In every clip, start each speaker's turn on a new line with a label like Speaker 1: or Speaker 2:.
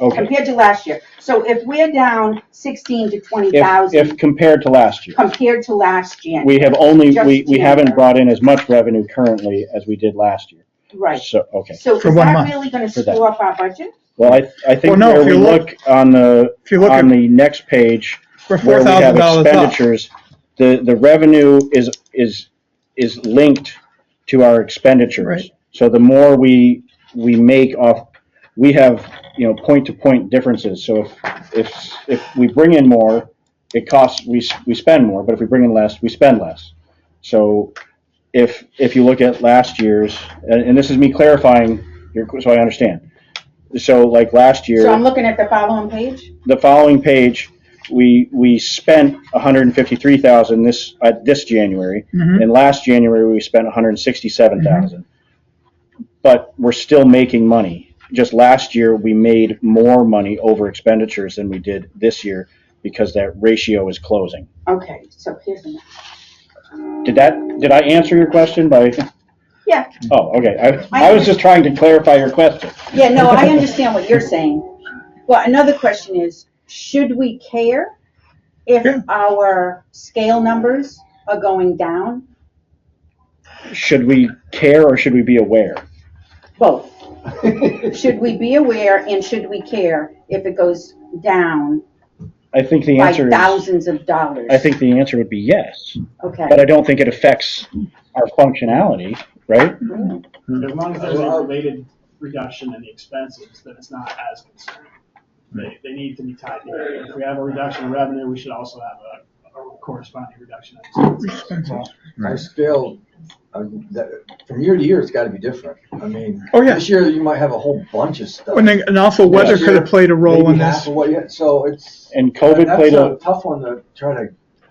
Speaker 1: Okay.
Speaker 2: compared to last year. So if we're down sixteen to twenty
Speaker 1: If,
Speaker 2: thousand
Speaker 1: if compared to last year,
Speaker 2: compared to last January,
Speaker 1: we have only,
Speaker 2: Just
Speaker 1: we, we
Speaker 2: January.
Speaker 1: haven't brought in as much revenue currently as we did last year.
Speaker 2: right?
Speaker 1: So, okay.
Speaker 2: So is
Speaker 3: For one
Speaker 2: that
Speaker 3: month.
Speaker 2: really gonna
Speaker 1: For that.
Speaker 2: screw up our budget?
Speaker 1: Well, I, I think
Speaker 3: Well, no,
Speaker 1: where
Speaker 3: if
Speaker 1: we
Speaker 3: you
Speaker 1: look on the,
Speaker 3: If you look
Speaker 1: on
Speaker 3: at,
Speaker 1: the next page,
Speaker 3: we're
Speaker 1: where
Speaker 3: four
Speaker 1: we have
Speaker 3: thousand dollars up.
Speaker 1: expenditures, the, the revenue is, is, is linked to our expenditures.
Speaker 3: Right.
Speaker 1: So the more we, we make off, we have, you know, point-to-point differences. So if, if, if we bring in more, it costs, we, s- we spend more, but if we bring in less, we spend less. So if, if you look at last year's, and, and this is me clarifying, your- so I understand. So like last year
Speaker 2: So I'm looking at the following page?
Speaker 1: the following page, we, we spent hundred and fifty-three thousand this, uh, this January.
Speaker 3: Mhm.
Speaker 1: And last January, we spent hundred and sixty-seven thousand. But we're still making money. Just last year, we made more money over expenditures than we did this year because that ratio is closing.
Speaker 2: Okay, so here's the.
Speaker 1: Did that, did I answer your question by?
Speaker 2: Yeah.
Speaker 1: Oh, okay. I, I was just trying to clarify your question.
Speaker 2: Yeah, no, I understand what you're saying. Well, another question is, should we care
Speaker 3: Yeah.
Speaker 2: if our scale numbers are going down?
Speaker 1: Should we care or should we be aware?
Speaker 2: Both. Should we be aware and should we care if it goes down
Speaker 1: I think the
Speaker 2: by
Speaker 1: answer is,
Speaker 2: thousands of dollars?
Speaker 1: I think the answer would be yes.
Speaker 2: Okay,
Speaker 1: but I don't think it affects our functionality, right?
Speaker 4: As long as there's a related reduction in the expenses, then it's not as concerning. They, they need to be tied together. If we have a reduction in revenue, we should also have a, a corresponding reduction in expenses.
Speaker 5: Our scale, um, that, from year to year, it's gotta be different. I mean,
Speaker 3: Oh, yeah.
Speaker 5: this year you might have a whole bunch of stuff.
Speaker 3: And then- and also weather
Speaker 5: Next
Speaker 3: could have
Speaker 5: year,
Speaker 3: played a role
Speaker 5: Maybe
Speaker 3: in
Speaker 5: half
Speaker 3: this.
Speaker 5: of what you- So it's.
Speaker 1: And COVID
Speaker 5: that's
Speaker 1: played
Speaker 5: a
Speaker 1: a,
Speaker 5: Tough one to try to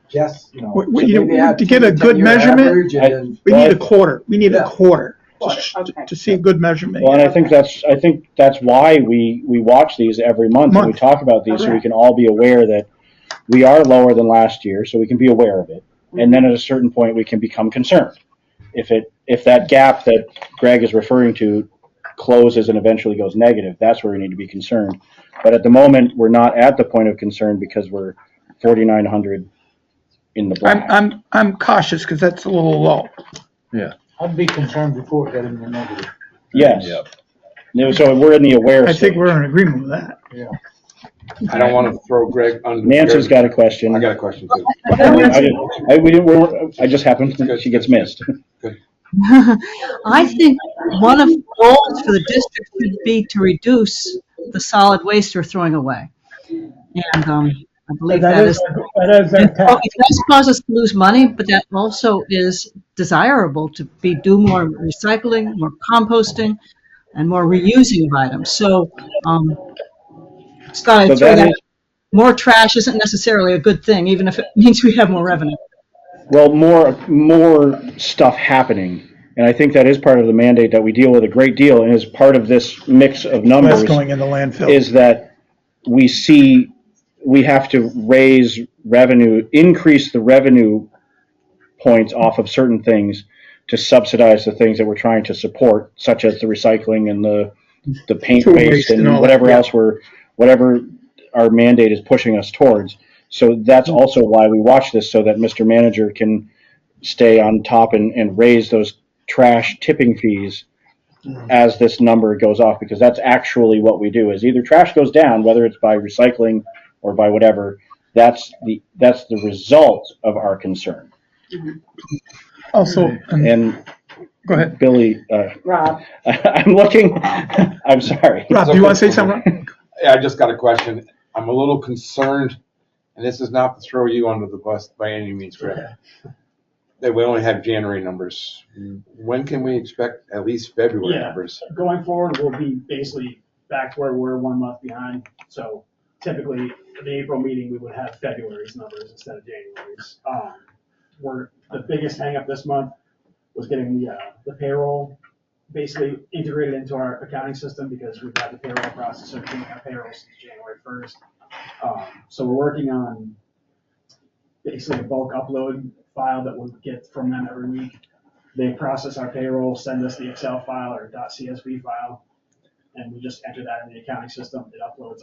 Speaker 5: guess, you know.
Speaker 3: We-
Speaker 5: So
Speaker 3: we- you know,
Speaker 5: maybe add
Speaker 3: to get a
Speaker 5: 10
Speaker 3: good
Speaker 5: year
Speaker 3: measurement,
Speaker 5: average and
Speaker 1: I-
Speaker 5: then-
Speaker 3: We need a quarter, we need a
Speaker 5: Yeah.
Speaker 3: quarter to,
Speaker 2: Quarter, okay.
Speaker 3: to see a good measurement.
Speaker 1: well, and I think that's, I think that's why we, we watch these every month and we
Speaker 3: Month.
Speaker 1: talk about these, so we
Speaker 2: Correct.
Speaker 1: can all be aware that we are lower than last year, so we can be aware of it. And then at a certain point, we can become concerned. If it, if that gap that Greg is referring to closes and eventually goes negative, that's where we need to be concerned. But at the moment, we're not at the point of concern because we're forty-nine hundred in the
Speaker 3: I'm,
Speaker 1: black.
Speaker 3: I'm, I'm cautious because that's a little low.
Speaker 6: I'd be concerned before it got into the negative.
Speaker 1: Yes. No, So we're in the aware
Speaker 3: I
Speaker 1: stage.
Speaker 3: think we're in agreement with that.
Speaker 7: I don't want to throw Greg under.
Speaker 1: Nancy's got a question.
Speaker 7: I got a question too.
Speaker 1: I didn't- I, we didn't, we weren't- I just happened, she gets missed.
Speaker 8: I think one of the goals for the district should be to reduce the solid waste we're throwing away. And um, I believe that is,
Speaker 6: That is our
Speaker 8: it
Speaker 6: task.
Speaker 8: does cause us to lose money, but that also is desirable to be, do more recycling, more composting, and more reusing of items. So, um, just thought
Speaker 1: So
Speaker 8: I'd throw
Speaker 1: that
Speaker 8: that,
Speaker 1: is-
Speaker 8: more trash isn't necessarily a good thing, even if it means we have more revenue.
Speaker 1: Well, more, more stuff happening. And I think that is part of the mandate that we deal with a great deal and is part of this mix of
Speaker 3: That's
Speaker 1: numbers
Speaker 3: going in the landfill.
Speaker 1: is that we see, we have to raise revenue, increase the revenue points off of certain things to subsidize the things that we're trying to support, such as the recycling and the, the paint
Speaker 3: Tool
Speaker 1: waste
Speaker 3: waste and all
Speaker 1: and
Speaker 3: that,
Speaker 1: whatever
Speaker 3: yeah.
Speaker 1: else we're, whatever our mandate is pushing us towards. So that's
Speaker 3: Mm-hmm.
Speaker 1: also why we watch this, so that Mr. Manager can stay on top and, and raise those trash tipping fees
Speaker 3: Mm-hmm.
Speaker 1: as this number goes off, because that's actually what we do, is either trash goes down, whether it's by recycling or by whatever, that's the, that's the result of our concern.
Speaker 3: Also, and-
Speaker 1: And
Speaker 3: go ahead.
Speaker 1: Billy, uh,
Speaker 2: Rob,
Speaker 1: I'm looking, I'm sorry.
Speaker 3: Rob, do you want to say something?
Speaker 7: Yeah, I just got a question. I'm a little concerned, and this is not to throw you under the bus by any means, Greg. That we only have January numbers. When can we expect at least February
Speaker 4: Yeah.
Speaker 7: numbers?
Speaker 4: Going forward, we'll be basically back to where we were one month behind. So typically, in the April meeting, we would have February's numbers instead of January's. Um, We're, the biggest hangup this month was getting the, uh, the payroll basically integrated into our accounting system because we've got the payroll process, so we can't have payroll since January first. Um, So we're working on basically a bulk upload file that we'll get from them every week they process our payroll, send us the Excel file or .csv file, and we just enter that in the accounting system, it uploads